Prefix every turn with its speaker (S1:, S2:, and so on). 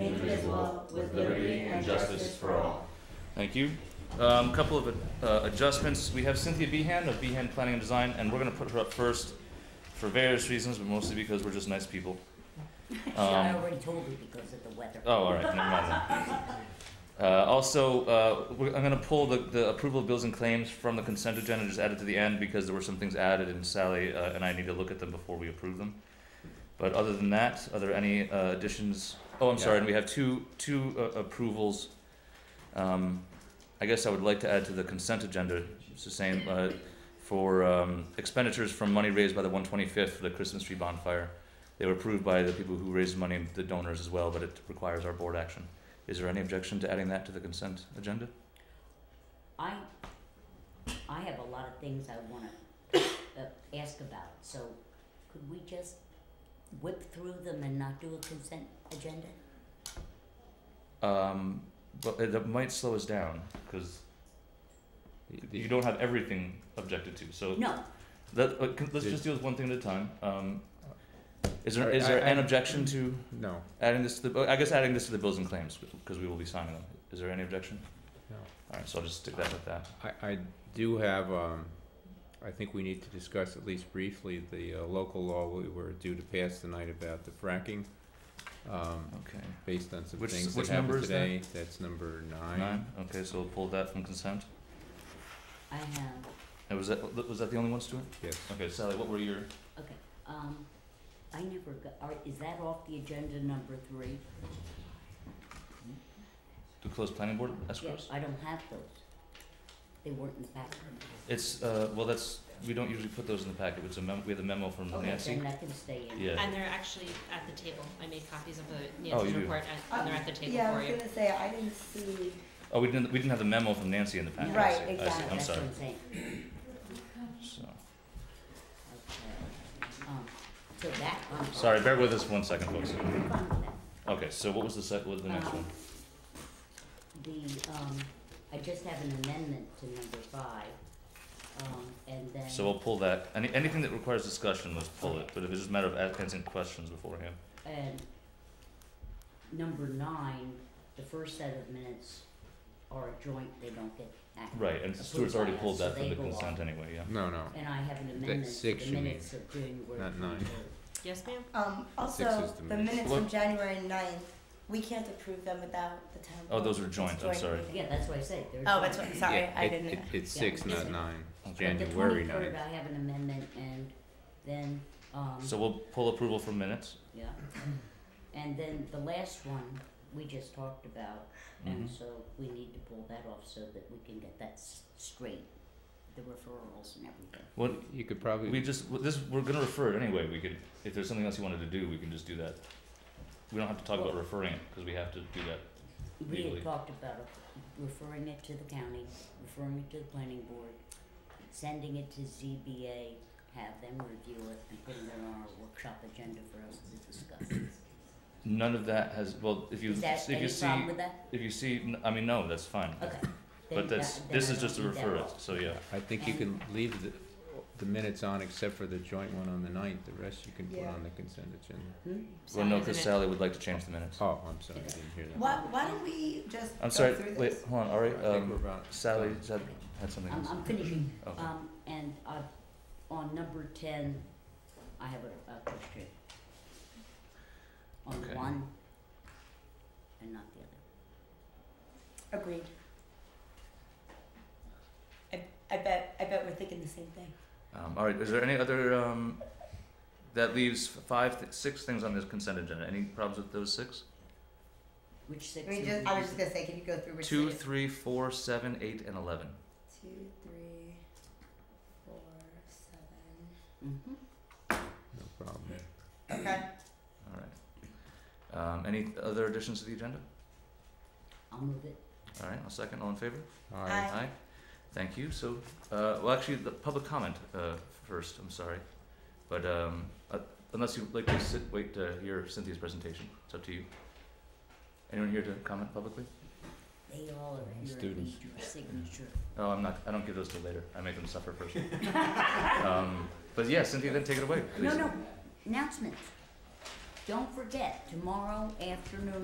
S1: indivisible, with liberty and justice for all.
S2: Thank you. Um, couple of uh, adjustments. We have Cynthia Behan of Behan Planning and Design, and we're going to put her up first for various reasons, but mostly because we're just nice people.
S3: I
S2: Um,
S3: already told you because of the weather.
S2: oh, all right. Never mind. then. Uh, also, uh, we're, I'm going to pull the, the approval of bills and claims from the consent agenda and just add it to the end because there were some things added, and Sally uh, and I need to look at them before we approve them. But other than that, are there any uh, additions? Oh, I'm sorry. And we have two two uh, approvals. Um, I guess I would like to add to the consent agenda. It's the same uh, for um, expenditures from money raised by the 125th for the Christmas tree bonfire. They were approved by the people who raised money, the donors as well, but it requires our board action. Is there any objection to adding that to the consent agenda?
S3: I, I have a lot of things I wanna uh, ask about, so could we just whip through them and not do a consent agenda?
S2: Um, but it- that might slow us down because you don't have everything objected to. So
S3: No,
S2: let, uh, con- let's
S1: Did-
S2: just deal with one thing at a time. Um, is there
S1: Alright,
S2: is there
S1: I- I-
S2: an objection to
S1: No,
S2: adding this to the? oh, I guess adding this to the bills and claims because we will be signing them. Is there any objection?
S1: no.
S2: All right, so I'll just stick that with that.
S1: I, I do have, um, I think we need to discuss at least briefly the uh, local law we were due to pass tonight about the fracking, um,
S2: Okay.
S1: based on some
S2: Which-
S1: things
S2: which
S1: that
S2: number
S1: happened
S2: is that?
S1: today. That's number
S2: Nine. Okay, so we'll pull that from consent.
S3: I have,
S2: And was that was that the only ones to it?
S1: Yes.
S2: Okay, Sally, what were your?
S3: okay, um, I never got, are, is that off the agenda number three?
S2: The closed planning board
S3: Yeah,
S2: escrows?
S3: I don't have those. They weren't in the packet.
S2: It's, uh, well, that's, we don't usually put those in the packet, it's a memo, we had the memo from
S3: Okay,
S2: Nancy.
S3: then I can stay in.
S2: Yeah,
S4: And they're actually at the table. I made copies of the
S2: Oh, you
S4: Nancy's
S2: do.
S4: report, and- and they're at the table
S5: Yeah, I
S4: for
S5: was
S4: you.
S5: gonna say, I didn't see,
S2: oh, we didn't, we didn't have the memo from Nancy in the packet, I
S5: Right,
S2: see, I see,
S5: exactly,
S2: I'm
S3: That's what
S2: sorry,
S3: I'm saying.
S2: so.
S3: Okay. Um, So that, I'm
S2: Sorry, bear with us one second, folks.
S3: I'm fine with that.
S2: Okay, so what was the sec, what was the next one?
S3: Um, The, um, I just have an amendment to number five, um, and then.
S2: So we'll pull that, any, anything that requires discussion, let's pull it, but if it's just a matter of a- answering questions beforehand.
S3: And number nine, the first set of minutes are joint, they don't get acted.
S2: Right, and Stuart's already pulled that from the consent anyway, yeah.
S1: No, no,
S3: And I have an amendment to
S1: six,
S3: the
S1: you mean,
S3: minutes of January
S1: not nine.
S3: twenty-third.
S4: Yes, ma'am?
S5: um,
S1: Six
S5: also,
S1: is the
S5: the
S1: minutes.
S5: minutes
S2: What?
S5: from January ninth, we can't approve them without the town.
S2: Oh, those are
S5: vote. It's
S2: joint, I'm sorry.
S5: meeting.
S3: Yeah, that's what I say, they're.
S5: Oh, that's
S3: joint.
S5: what, sorry,
S1: Yeah,
S5: I
S1: it-
S5: didn't.
S1: it- It's
S3: Yeah.
S1: six,
S3: Is
S1: not
S3: it-
S1: nine,
S2: Okay.
S3: The
S1: January
S3: twenty-third,
S1: ninth.
S3: I have an amendment, and then, um.
S2: So we'll pull approval for minutes,
S3: Yeah. And then the last one, we just talked about, and
S2: Mhm.
S3: so we need to pull that off so that we can get that s- straight, the referrals and everything.
S2: what,
S1: You could probably.
S2: We just w- this we're gonna refer it anyway. We could if there's something else you wanted to do, we can just do that. We don't have to talk about referring it because we have to do that.
S3: We
S2: Legally.
S3: had talked about referring it to the county, referring it to the planning board, sending it to ZBA, have them review it and putting it on our workshop agenda for us to discuss.
S2: None of that has well. If you
S3: Is that
S2: if you
S3: any
S2: see
S3: problem with that?
S2: if you see, n- I mean no, that's fine.
S3: Okay.
S2: But that's this is just to refer it. So yeah.
S1: I think you can
S3: And-
S1: leave the, the minutes on except for the joint one on the ninth, the rest you can put
S5: Yeah.
S1: on the consent agenda.
S3: Hmm?
S2: Well, no,
S4: Sally,
S2: because
S4: isn't it-
S2: Sally would like to change the minutes.
S1: Oh, I'm sorry, I didn't hear that.
S5: Why, why don't we just
S2: I'm
S5: go
S2: sorry.
S5: through this?
S2: Wait, hold on. All right.
S1: I think we're
S2: Um,
S1: about.
S2: Sally said, had something
S3: I'm,
S2: else.
S3: I'm finishing.
S2: Okay.
S3: Um, and I, on number ten, I have a, a question. On
S2: Okay.
S3: one and not the other.
S5: Agreed. I, I bet, I bet we're thinking the same thing.
S2: Um, all right. Is there any other? Um, that leaves five, th- six things on this consent agenda. Any problems with those six?
S3: Which six?
S5: I mean,
S3: is
S5: just,
S3: it?
S5: I was just gonna say, can you go through which?
S2: Two,
S5: it is?
S2: three, four, seven, eight, and eleven.
S5: Two, three, four, seven.
S3: Mhm.
S1: No problem.
S5: Okay.
S2: All right. Um, any other additions to the agenda?
S3: I'll move it.
S2: All right, I'll second. All in favor?
S1: All right,
S5: Aye.
S2: Thank you. So, uh, well, actually, the public comment uh, first. I'm sorry, but um, uh, unless you'd like to sit, wait to hear Cynthia's presentation, it's up to you. Anyone here to comment publicly?
S3: They all are here. I
S1: Students.
S3: need your signature.
S2: Oh, I'm not. I don't give those to later. I make them suffer first. um, but yeah, Cynthia, then take it away.
S3: No,
S2: please.
S3: no, announcements. Don't forget, tomorrow afternoon